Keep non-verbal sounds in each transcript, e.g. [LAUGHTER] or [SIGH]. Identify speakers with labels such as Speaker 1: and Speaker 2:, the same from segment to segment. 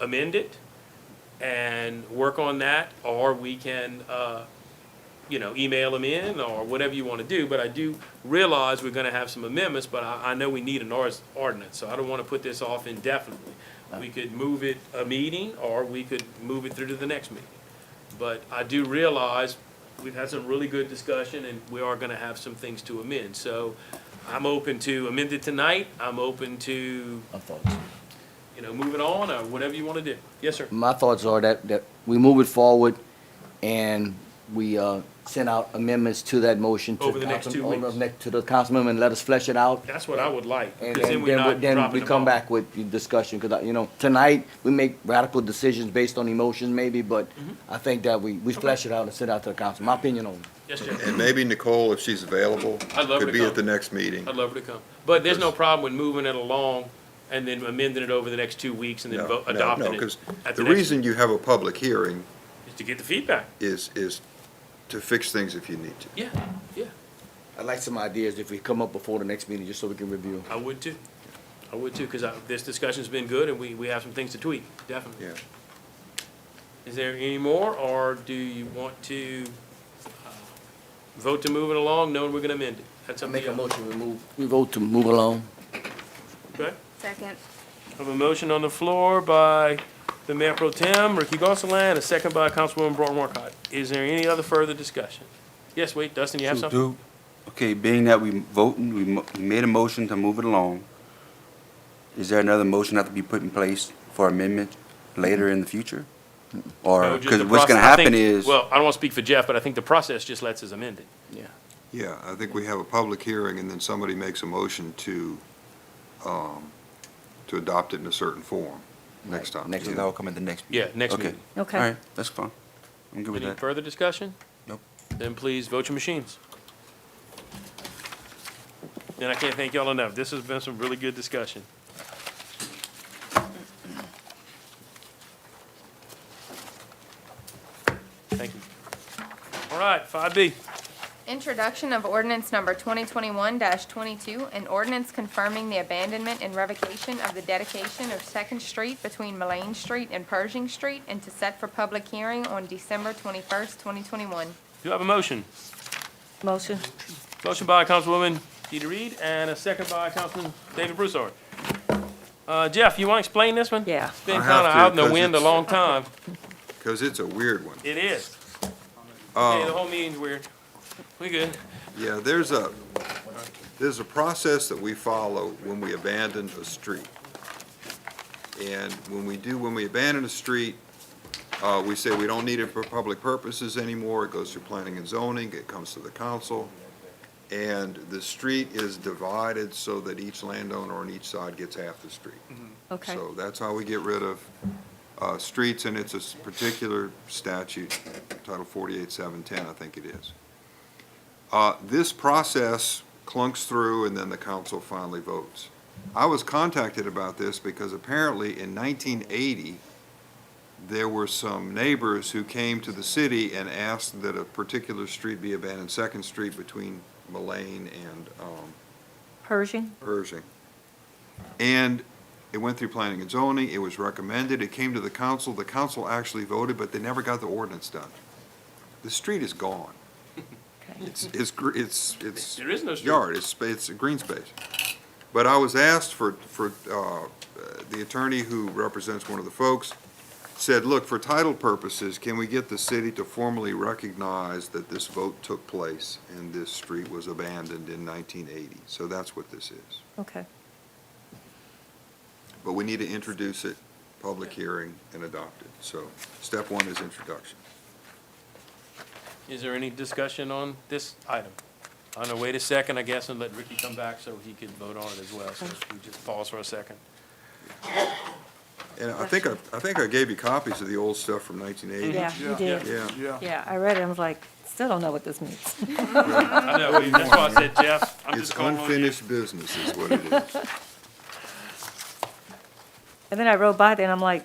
Speaker 1: amend it and work on that, or we can, uh, you know, email them in, or whatever you want to do, but I do realize we're gonna have some amendments, but I, I know we need an ors- ordinance, so I don't want to put this off indefinitely. We could move it a meeting, or we could move it through to the next meeting. But I do realize we've had some really good discussion and we are gonna have some things to amend. So I'm open to amend it tonight. I'm open to,
Speaker 2: My thoughts.
Speaker 1: you know, move it on or whatever you wanna do. Yes, sir.
Speaker 2: My thoughts are that, that we move it forward and we, uh, send out amendments to that motion. to
Speaker 1: Over the next
Speaker 2: council-
Speaker 1: two
Speaker 2: over the
Speaker 1: weeks.
Speaker 2: next- To the councilman and let us flesh it out.
Speaker 1: That's what I would like,
Speaker 2: And
Speaker 1: because
Speaker 2: then,
Speaker 1: then we're
Speaker 2: then, we-
Speaker 1: not
Speaker 2: then we
Speaker 1: dropping the
Speaker 2: come
Speaker 1: ball.
Speaker 2: back with the discussion, because, you know, tonight, we make radical decisions based on emotions maybe, but
Speaker 1: Mm-hmm.
Speaker 2: I think that we, we flesh it out and send it out to the council, my opinion on it.
Speaker 1: Yes,
Speaker 3: And
Speaker 1: sir.
Speaker 3: maybe Nicole, if she's available,
Speaker 1: I'd love her to
Speaker 3: could be
Speaker 1: come.
Speaker 3: at the next meeting.
Speaker 1: I'd love her to come. But there's no problem with moving it along and then amending it over the next two weeks and then
Speaker 3: No,
Speaker 1: vo-
Speaker 3: no,
Speaker 1: adopting
Speaker 3: no,
Speaker 1: it.
Speaker 3: 'cause
Speaker 1: at
Speaker 3: The
Speaker 1: next-
Speaker 3: reason you have a public hearing
Speaker 1: is To get the feedback.
Speaker 3: is, is to fix things if you need to.
Speaker 1: Yeah, yeah.
Speaker 2: I'd like some ideas if we come up before the next meeting, just so we can review.
Speaker 1: I would too. I would too, because this discussion's been good and we, we have some things to tweak, definitely.
Speaker 3: Yeah.
Speaker 1: Is there any more, or do you want to uh, vote to move it along, knowing we're gonna amend it? That's
Speaker 2: I
Speaker 1: up to
Speaker 2: make a
Speaker 1: you.
Speaker 2: motion, we move, we vote to move along.
Speaker 1: Okay.
Speaker 4: Second.
Speaker 1: I have a motion on the floor by the Mayor Pro Tem, Ricky Gonsalas, a second by Councilwoman Broughton Marcott. Is there any other further discussion? Yes, wait, Dustin, you have
Speaker 5: So
Speaker 1: something?
Speaker 5: do- Okay, being that we voting, we mo- we made a motion to move it along, is there another motion have to be put in place for amendment later in the future?
Speaker 1: No,
Speaker 3: Mm-hmm.
Speaker 5: Or,
Speaker 1: just
Speaker 5: because
Speaker 1: the
Speaker 5: what's gonna
Speaker 1: process. I
Speaker 5: happen
Speaker 1: think-
Speaker 5: is,
Speaker 1: Well, I don't want to speak for Jeff, but I think the process just lets us amend it.
Speaker 3: Yeah, I think we have a public hearing and then somebody makes a motion to, um, to adopt it in a certain form next time.
Speaker 2: Next
Speaker 5: so
Speaker 3: yeah.
Speaker 5: that'll come at the next meeting?
Speaker 1: Yeah, next
Speaker 5: Okay.
Speaker 1: meeting.
Speaker 4: Okay.
Speaker 5: All right, that's fine. I'm good with
Speaker 1: Any
Speaker 5: that.
Speaker 1: further discussion?
Speaker 5: Nope.
Speaker 1: Then please vote your machines. And I can't thank y'all enough. This has been some really good discussion. Thank you. All right, five B.
Speaker 4: Introduction of ordinance number 2021-22, an ordinance confirming the abandonment and revocation of the dedication of Second Street between Mullane Street and Pershing Street and to set for public hearing on December 21st, 2021.
Speaker 1: Do I have a motion?
Speaker 6: Motion.
Speaker 1: Motion by Councilwoman Deidre Reed and a second by Councilman David Broussard. Uh, Jeff, you want to explain this one?
Speaker 6: Yeah.
Speaker 1: It's been
Speaker 3: I
Speaker 1: kind
Speaker 3: have
Speaker 1: of
Speaker 3: to,
Speaker 1: out in the
Speaker 3: 'cause
Speaker 1: wind a
Speaker 3: it's-
Speaker 1: long time.
Speaker 3: Cause it's a weird one.
Speaker 1: It is.
Speaker 3: Um,
Speaker 1: Hey, the whole meeting's weird. We good.
Speaker 3: Yeah, there's a, there's a process that we follow when we abandon a street. And when we do, when we abandon a street, uh, we say we don't need it for public purposes anymore. It goes through planning and zoning, it comes to the council. And the street is divided so that each landowner on each side gets half the street.
Speaker 6: Okay.
Speaker 3: So that's how we get rid of uh, streets, and it's a s- particular statute, Title 48.710, I think it is. Uh, This process clunks through, and then the council finally votes. I was contacted about this because apparently in 1980, there were some neighbors who came to the city and asked that a particular street be abandoned, Second Street between Mullane and um,
Speaker 6: Pershing?
Speaker 3: Pershing. And it went through planning and zoning, it was recommended, it came to the council, the council actually voted, but they never got the ordinance done. The street is gone.
Speaker 6: Okay.
Speaker 3: It's, it's, gr- it's, it's.
Speaker 1: There is no street.
Speaker 3: Yard, it's, spa- it's a green space. But I was asked for, for, uh, uh, the attorney who represents one of the folks said, look, for title purposes, can we get the city to formally recognize that this vote took place and this street was abandoned in nineteen eighty? So that's what this is.
Speaker 6: Okay.
Speaker 3: But we need to introduce it, public hearing, and adopt it. So step one is introduction.
Speaker 1: Is there any discussion on this item? I'm gonna wait a second, I guess, and let Ricky come back so he can vote on it as well. So we just pause for a second.
Speaker 3: And I think, I I think I gave you copies of the old stuff from nineteen eighty.
Speaker 6: Yeah, you did.
Speaker 3: Yeah.
Speaker 6: Yeah, I read it, I was like, still don't know what this means.
Speaker 1: [LAUGHS] I know, that's why I said, Jeff, I'm
Speaker 3: It's
Speaker 1: just calling on you.
Speaker 3: unfinished business is what it is.
Speaker 6: And then I rode by there and I'm like,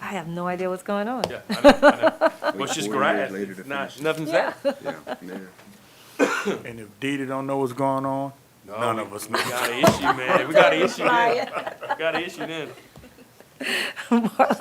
Speaker 6: I have no idea what's going on.
Speaker 1: Yeah, I know, I know. Well,
Speaker 3: Wait
Speaker 1: it's just
Speaker 3: four years
Speaker 1: grass,
Speaker 3: later to
Speaker 1: It's not,
Speaker 3: finish it.
Speaker 1: nothing's
Speaker 6: [LAUGHS]
Speaker 1: there.
Speaker 3: Yeah. [LAUGHS]
Speaker 7: And if Didi don't know what's going on, none of us know.
Speaker 1: We
Speaker 6: [LAUGHS]
Speaker 1: got an issue, man, we got an issue then, got an issue then.